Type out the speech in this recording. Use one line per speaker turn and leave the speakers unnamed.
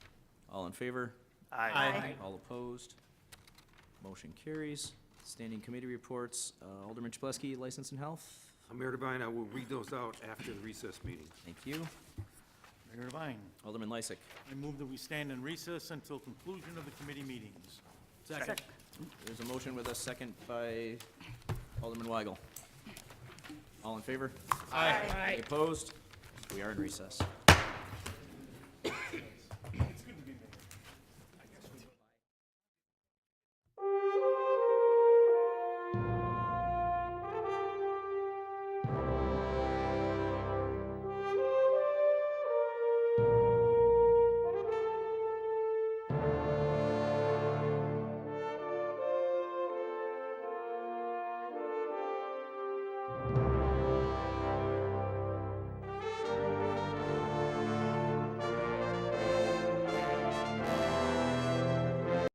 All in favor?
Aye.
All opposed? Motion carries. Standing committee reports, uh, Alderman Chableski, License and Health,
Mayor Devine, I will read those out after the recess meeting.
thank you.
Mayor Devine,
Alderman Lysick,
I move that we stand in recess until conclusion of the committee meetings.
Second.
there's a motion with a second by Alderman Weigel. All in favor?
Aye.
Opposed? We are in recess.